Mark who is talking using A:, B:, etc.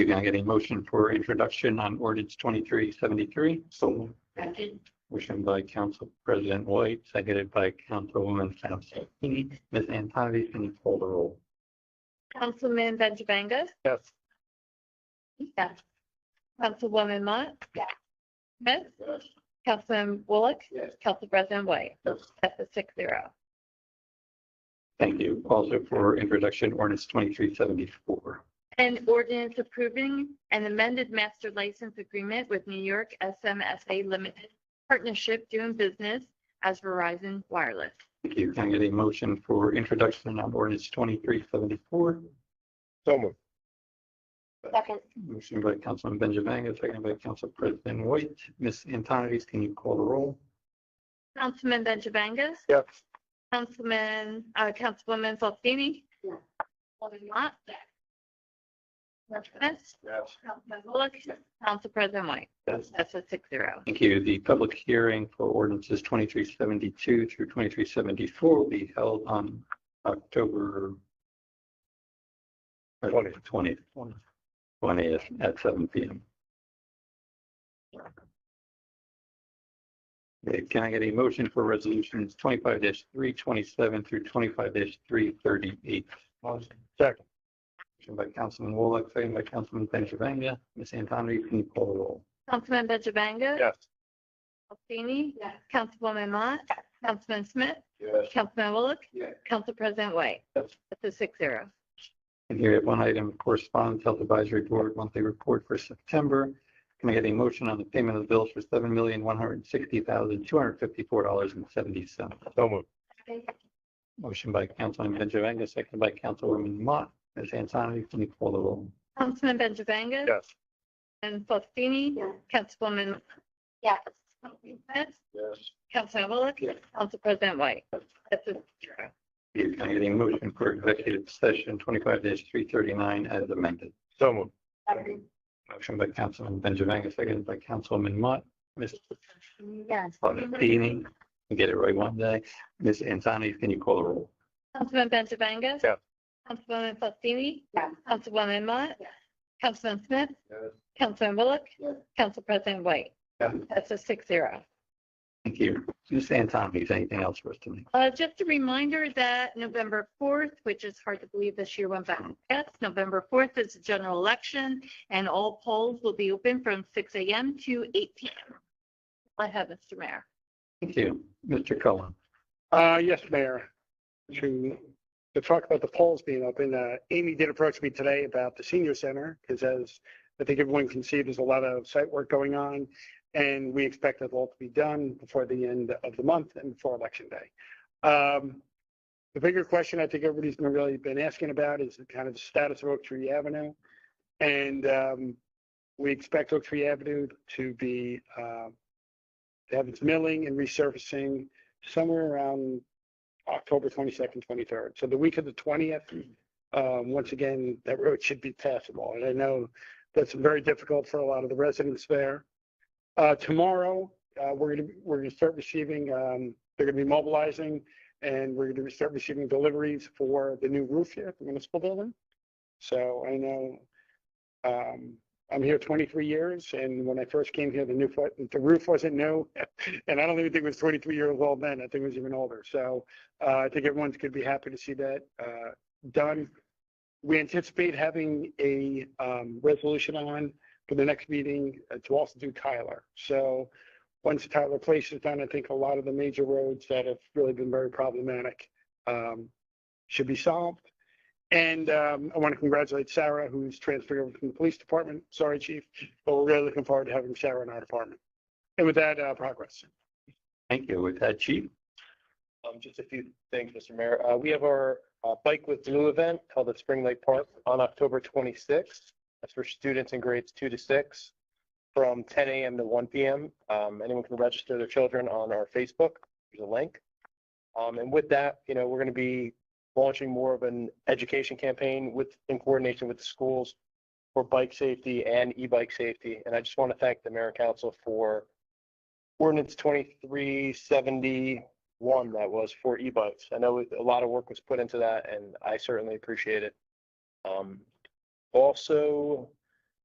A: Can I get a motion for introduction on ordinance twenty-three seventy-three? So
B: Second.
A: motion by Council President White, seconded by Councilwoman Fausti. Ms. Antoni, can you call the roll?
C: Councilman Benjavanga,
A: Yes.
C: Yes. Councilwoman Mott.
B: Yes.
C: Smith. Councilman Bullock.
A: Yes.
C: Council President White.
A: Yes.
C: That's a six zero.
A: Thank you. Also for introduction, ordinance twenty-three seventy-four.
C: An ordinance approving an amended master license agreement with New York SMSA Limited Partnership doing business as Verizon Wireless.
A: Thank you. Can I get a motion for introduction on ordinance twenty-three seventy-four?
D: So moved.
B: Second.
A: Motion by Councilman Benjavanga, seconded by Council President White. Ms. Antoni, can you call the roll?
C: Councilman Benjavanga.
D: Yes.
C: Councilman, uh, Councilwoman Fostini.
B: Yes.
C: Councilwoman Mott. Smith.
D: Yes.
C: Councilman Bullock. Council President White.
A: Yes.
C: That's a six zero.
A: Thank you. The public hearing for ordinances twenty-three seventy-two through twenty-three seventy-four will be held on October
D: Twentieth.
A: twentieth, twentieth at seven P M. Can I get a motion for resolutions twenty-five three twenty-seven through twenty-five three thirty-eight? Motion
D: Second.
A: by Councilman Wallach, second by Councilman Benjavanga. Ms. Antoni, can you call the roll?
C: Councilman Benjavanga.
D: Yes.
C: Alstini.
B: Yes.
C: Councilwoman Mott. Councilman Smith.
D: Yes.
C: Councilman Bullock.
D: Yes.
C: Council President White.
A: Yes.
C: That's a six zero.
A: And here we have one item, correspondence, Health Advisory Board monthly report for September. Can I get a motion on the payment of the bills for seven million, one hundred and sixty thousand, two hundred and fifty-four dollars and seventy cents?
D: So moved.
A: Motion by Councilman Benjavanga, second by Councilwoman Mott. Ms. Antoni, can you call the roll?
C: Councilman Benjavanga.
D: Yes.
C: And Fostini.
B: Yes.
C: Councilwoman.
B: Yes.
C: Smith.
D: Yes.
C: Councilman Bullock.
A: Yes.
C: Council President White. That's a zero.
A: Can I get a motion for executive session twenty-five three thirty-nine as amended?
D: So moved.
B: Second.
A: Motion by Councilman Benjavanga, second by Councilwoman Mott. Ms.
B: Yes.
A: Fostini, we get it right one day. Ms. Antoni, can you call the roll?
C: Councilman Benjavanga.
D: Yes.
C: Councilwoman Fostini.
B: Yes.
C: Councilwoman Mott.
B: Yes.
C: Councilman Smith.
D: Yes.
C: Councilman Bullock.
D: Yes.
C: Council President White.
A: Yes.
C: That's a six zero.
A: Thank you. Ms. Antoni, is anything else for us tonight?
C: Uh, just a reminder that November fourth, which is hard to believe this year went by fast, November fourth is the general election and all polls will be open from six AM to eight PM. I have Mr. Mayor.
A: Thank you. Mr. Cullen.
D: Uh, yes, Mayor. To, to talk about the polls being open, uh, Amy did approach me today about the senior center, because as I think everyone can see, there's a lot of site work going on, and we expect it all to be done before the end of the month and before Election Day. Um, the bigger question I think everybody's been really been asking about is the kind of the status of Oak Tree Avenue. And, um, we expect Oak Tree Avenue to be, uh, to have its milling and resurfacing somewhere around October 22nd, 23rd. So the week of the 20th, um, once again, that road should be passable. And I know that's very difficult for a lot of the residents there. Uh, tomorrow, uh, we're going to, we're going to start receiving, um, they're going to be mobilizing and we're going to start receiving deliveries for the new roof here at the municipal building. So I know, um, I'm here 23 years and when I first came here, the new, fo- the roof wasn't new. And I don't even think it was 23 years old then. I think it was even older. So uh, I think everyone's going to be happy to see that uh, done. We anticipate having a um, resolution on for the next meeting uh, to also do Tyler. So once Tyler Place is done, I think a lot of the major roads that have really been very problematic um, should be solved. And um, I want to congratulate Sarah, who's transferred over from the police department. Sorry, chief, but we're really looking forward to having Sarah in our department. And with that, uh, progress.
A: Thank you. With that, Chief.
E: Um, just a few things, Mr. Mayor. Uh, we have our uh, Bike with Blue event held at Spring Lake Park on October twenty-sixth. That's for students in grades two to six from ten AM to one PM. Um, anyone can register their children on our Facebook. There's a link. Um, and with that, you know, we're going to be launching more of an education campaign with, in coordination with the schools for bike safety and e-bike safety. And I just want to thank the mayor and council for ordinance twenty-three seventy, one that was for e-bikes. I know a lot of work was put into that, and I certainly appreciate it. Um, also,